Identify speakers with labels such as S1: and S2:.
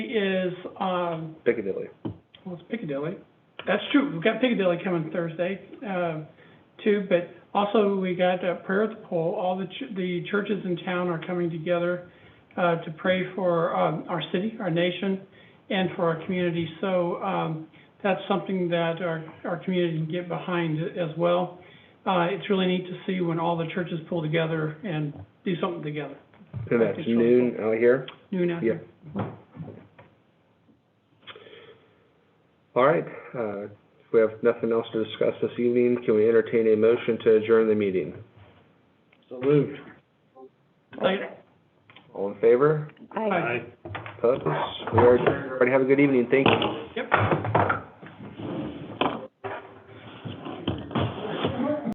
S1: is, um,
S2: Piccadilly.
S1: well, it's Piccadilly. That's true, we've got Piccadilly coming Thursday, um, too, but also we got uh prayer at the pole. All the ch- the churches in town are coming together, uh, to pray for, um, our city, our nation, and for our community. So, um, that's something that our, our community can get behind as well. Uh, it's really neat to see when all the churches pull together and do something together,
S2: And that's noon out here.
S1: noon after.
S2: Yeah. All right, uh, if we have nothing else to discuss this evening, can we entertain a motion to adjourn the meeting?
S3: So moved.
S1: Later.
S2: All in favor?
S1: Aye.
S2: Opposed? We are adjourned. Everybody have a good evening. Thank you.
S1: Yep.